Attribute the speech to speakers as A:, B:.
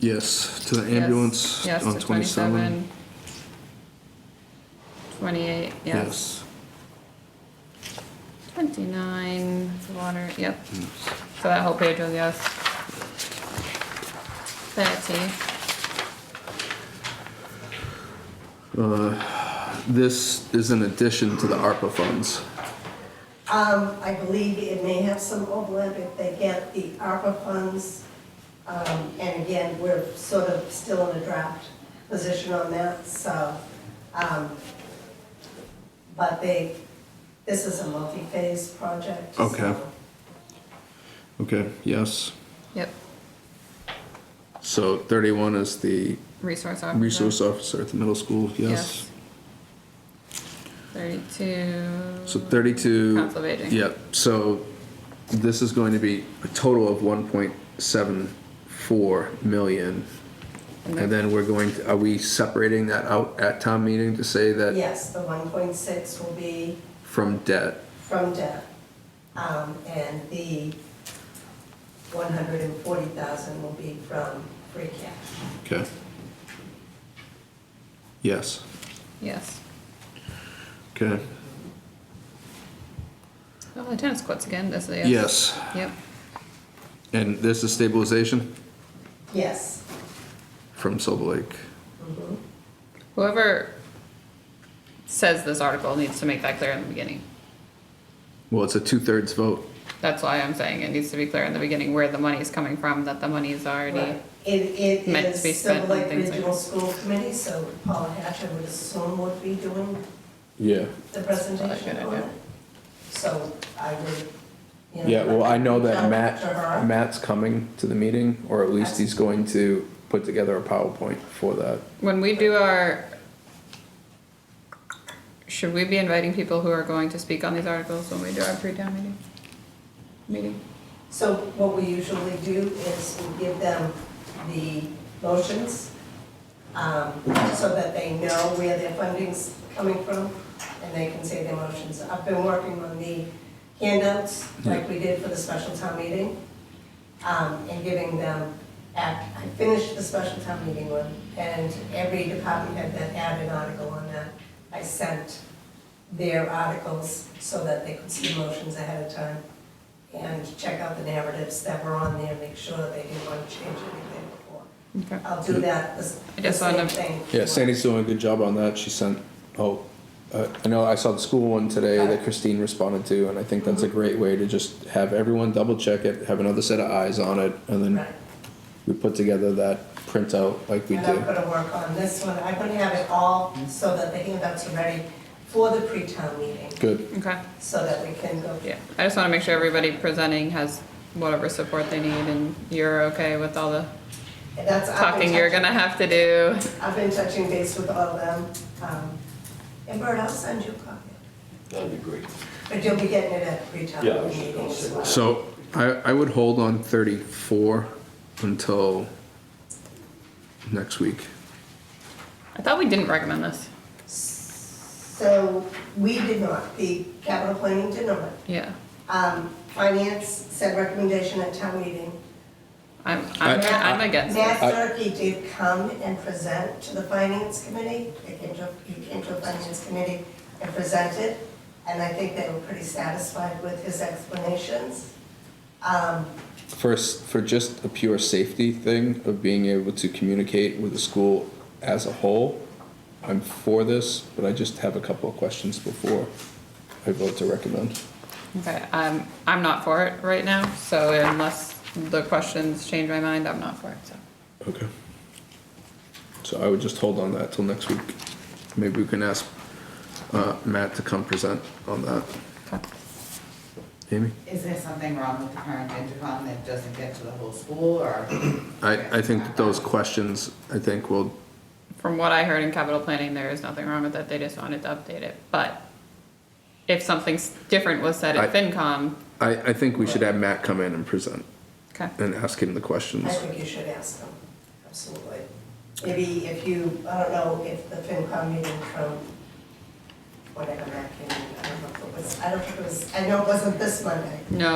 A: Yes, to the
B: Yes,
A: ambulance
B: yes,
A: on
B: to
A: 27.
B: 28, yes. 29, for water, yep. So that whole page was yes. 30,
A: This is in addition to the ARPA funds.
C: Um, I believe it may have some overlap if they get the ARPA funds. Um, and again, we're sort of still in a draft position on that, so, um, but they, this is a multi-phase project. so-
A: Okay. Okay, yes.
B: yep,
A: So 31 is the
B: resource officer.
A: resource officer at the middle school, yes.
B: 32.
A: So 32.
B: Council of Aging.
A: Yep, so this is going to be a total of 1.74 million.
B: And
A: And then we're going, to- are we separating that out at town meeting to say that
C: Yes, the one point six will be
A: from debt?
C: from debt. Um, and the one hundred and forty thousand will be from free cash.
A: Okay. Yes,
B: Yes.
A: okay,
B: Oh, the tennis courts again, this is a yes.
A: yes.
B: Yep,
A: And this is stabilization
C: Yes.
A: from Silver Lake.
C: Mhm.
B: whoever says this article needs to make that clear in the beginning.
A: Well, it's a two-thirds vote.
B: That's why I'm saying it needs to be clear in the beginning where the money's coming from, that the money's already,
C: Right. It, it
B: meant to be
C: is
B: spent
C: Silver
B: on
C: Lake
B: things like
C: Regional
B: this.
C: School Committee, so Paula Hatcher would assume would be doing
A: Yeah.
C: the
B: good
C: presentation on
B: idea.
C: it. So I would, you know.
A: Yeah, well, I know
C: reach out
A: that
C: to
A: Matt,
C: her.
A: Matt's coming to the meeting, or at least he's going to put together a PowerPoint for that.
B: when we do our, should we be inviting people who are going to speak on these articles when we do our pre-town meeting? Meeting?
C: So what we usually do is we give them the motions, um, so that they know where their funding's coming from, and they can say their motions. I've been working on the handouts, like we did for the special town meeting, um, and giving them, act- I finished the special town meeting one, and every department head that had an article on that, I sent their articles so that they could see motions ahead of time and check out the narratives that were on there, make sure that they didn't want to change anything before.
B: Okay.
C: I'll do that, the s-
B: I
C: the
B: just wanna-
C: same thing.
A: Yeah, Sandy's doing a good job on that. She sent, oh, uh, I know I saw the school one today that Christine responded to, and I think that's a
C: Mm-hmm.
A: great way to just have everyone double check it, have another set of eyes on it, and then
C: Right.
A: we put together that printout like we
C: And I'm
A: do.
C: gonna work on this one, I'm gonna have it all so that the handouts are ready for the pre-town meeting,
A: Good,
B: Okay,
C: so that we can go.
B: yeah, I just wanna make sure everybody presenting has whatever support they need and you're okay with all the
C: That's- I've been
B: talking you're
C: touching-
B: gonna have to do.
C: I've been touching base with all of them, um, and Bert, I'll send you a copy,
D: That'd be great.
C: but you'll be getting it at pre-town
D: Yeah, I was just
C: meeting
D: gonna
C: as
D: say.
C: well.
A: so I, I would hold on thirty-four until next week.
B: I thought we didn't recommend this.
C: So, we did not, the capital planning did not,
B: Yeah.
C: um, finance said recommendation at town meeting,
B: I'm, I'm,
A: I-
B: I'm against it.
C: Matt Durkey did come and present to the finance committee, he came to, he came to a finance committee and presented, and I think they were pretty satisfied with his explanations. Um,
A: First, for just a pure safety thing of being able to communicate with the school as a whole, I'm for this, but I just have a couple of questions before I vote to recommend.
B: Okay, I'm, um, I'm not for it right now, so unless the questions change my mind, I'm not for it, so.
A: Okay. So I would just hold on that till next week. Maybe we can ask uh, Matt to come present on that.
B: Okay.
A: Amy?
E: Is there something wrong with the current intercom that doesn't get to the whole school, or?
A: I, I think that those questions, I think will,
B: From what I heard in capital planning, there is nothing wrong with it, they just wanted to update it, but if something s- different was said at
A: I-
B: FinCom,
A: I, I think we should have Matt come in and present
B: okay,
A: and ask him the
C: I
A: questions.
C: think you should ask them, absolutely. Maybe if you, I don't know, if the FinCom meeting from whatever that came, I don't know if it was, I don't think it was, I know it wasn't this Monday.
B: no,